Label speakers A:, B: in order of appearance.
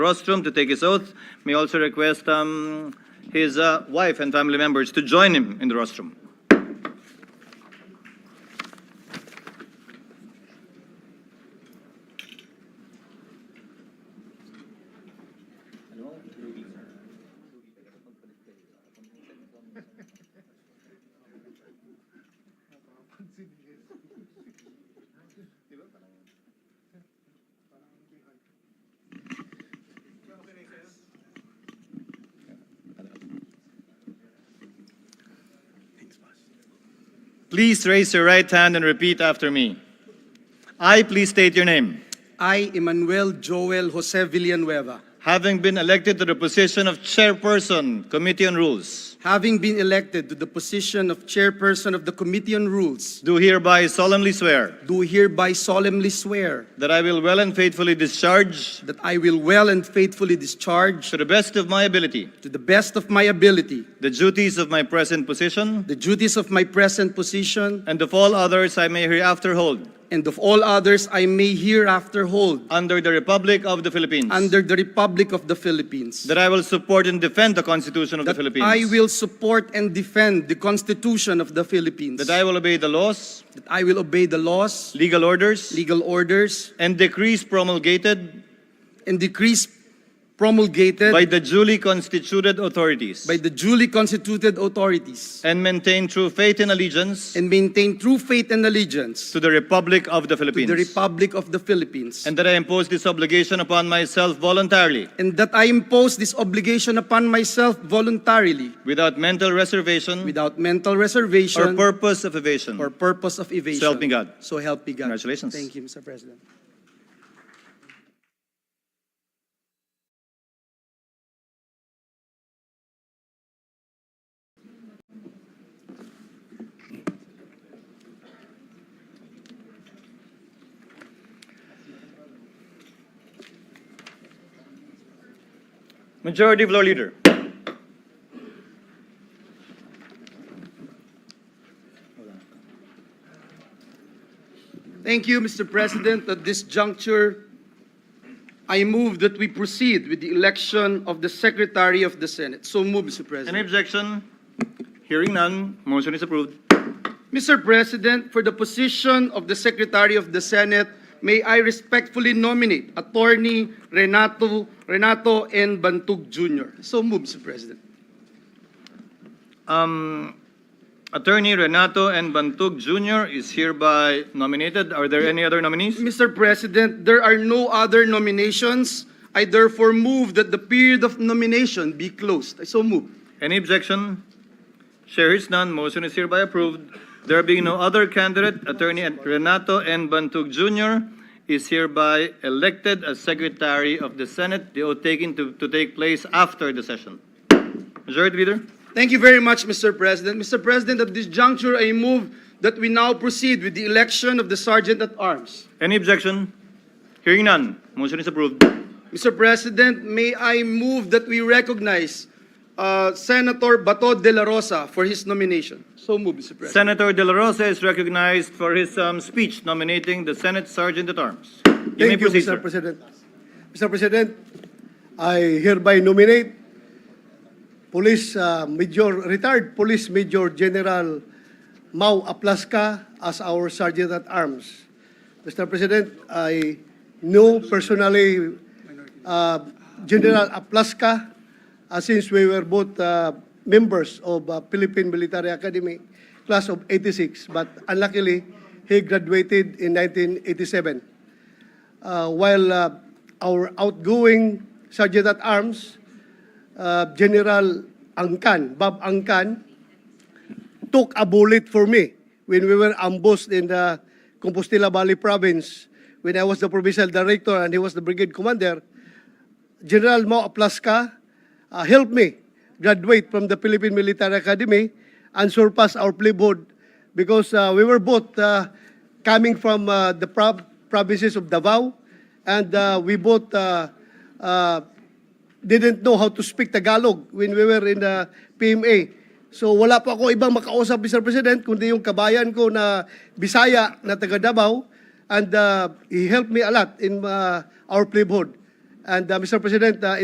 A: rostrum to take his oath. May also request um, his uh, wife and family members to join him in the rostrum. Please raise your right hand and repeat after me. I please state your name.
B: I, Emmanuel Joel Jose Villanueva,
A: Having been elected to the position of chairperson, Committee on Rules,
B: having been elected to the position of Chairperson of the Committee on Rules,
A: do hereby solemnly swear
B: do hereby solemnly swear
A: that I will well and faithfully discharge,
B: that I will well and faithfully discharge,
A: to the best of my ability,
B: to the best of my ability,
A: the duties of my present position
B: the duties of my present position
A: and of all others I may hereafter hold
B: and of all others I may hereafter hold
A: under the Republic of the Philippines.
B: under the Republic of the Philippines.
A: That I will support and defend the Constitution of the
B: That
A: Philippines.
B: I will support and defend the Constitution of the Philippines.
A: That I will obey the laws,
B: That I will obey the laws,
A: legal orders,
B: legal orders,
A: and decrees promulgated
B: and decrees promulgated
A: by the duly constituted authorities.
B: by the duly constituted authorities
A: And maintain true faith and allegiance
B: and maintain true faith and allegiance
A: to the Republic of the
B: to the
A: Philippines.
B: Republic of the Philippines,
A: And that I impose this obligation upon myself voluntarily,
B: and that I impose this obligation upon myself voluntarily
A: without mental reservation
B: without mental
A: or
B: reservation
A: purpose of evasion.
B: or purpose of evasion.
A: So help me God.
B: So help me God.
A: Congratulations.
B: Thank you, Mr. President.
A: Majority Floor Leader.
B: Thank you, Mr. President. At this juncture, I move that we proceed with the election of the Secretary of the Senate. So move, Mr. President.
A: Any objection? Hearing none, motion is approved.
B: Mr. President, for the position of the Secretary of the Senate, may I respectfully nominate Attorney Renato Renato N. Bantug Jr. So move, Mr. President.
A: Um, Attorney Renato N. Bantug Jr. is hereby nominated. Are there any other nominees?
B: Mr. President, there are no other nominations. I therefore move that the period of nomination be closed. I so move.
A: Any objection? Chair is none. Motion is hereby approved. There being no other candidate, Attorney Renato N. Bantug Jr. is hereby elected as Secretary of the Senate. The oath taken to, to take place after the session. Majority Leader?
B: Thank you very much, Mr. President. Mr. President, at this juncture, I move that we now proceed with the election of the Sergeant at Arms.
A: Any objection? Hearing none. Motion is approved.
B: Mr. President, may I move that we recognize uh, Senator Bato de la Rosa for his nomination? So move, Mr. President.
A: Senator De La Rosa is recognized for his um, speech nominating the Senate Sergeant at Arms. You may
C: Thank you,
A: proceed,
C: Mr.
A: sir.
C: President. Mr. President, I hereby nominate Police uh, Major, retired Police Major General Mau Aplaska as our Sergeant at Arms. Mr. President, I know personally uh, General Aplaska uh, since we were both uh, members of uh, Philippine Military Academy, class of 86, but unluckily, he graduated in 1987 uh, while uh, our outgoing Sergeant at Arms, uh, General Angkan, Bob Angkan, took a bullet for me when we were ambushed in the Compostela Valley province when I was the provincial director and he was the brigade commander. General Mo Aplaska uh, helped me graduate from the Philippine Military Academy and surpass our playboard because uh, we were both uh, coming from uh, the prob- provinces of Davao and uh, we both uh, uh, didn't know how to speak Tagalog when we were in the PMA. So wala pa ako ibang makausap, Mr. President, kundi yung kabayan ko na Bisaya na taga Davao and uh, he helped me a lot in uh, our playboard. And uh, Mr. President, uh,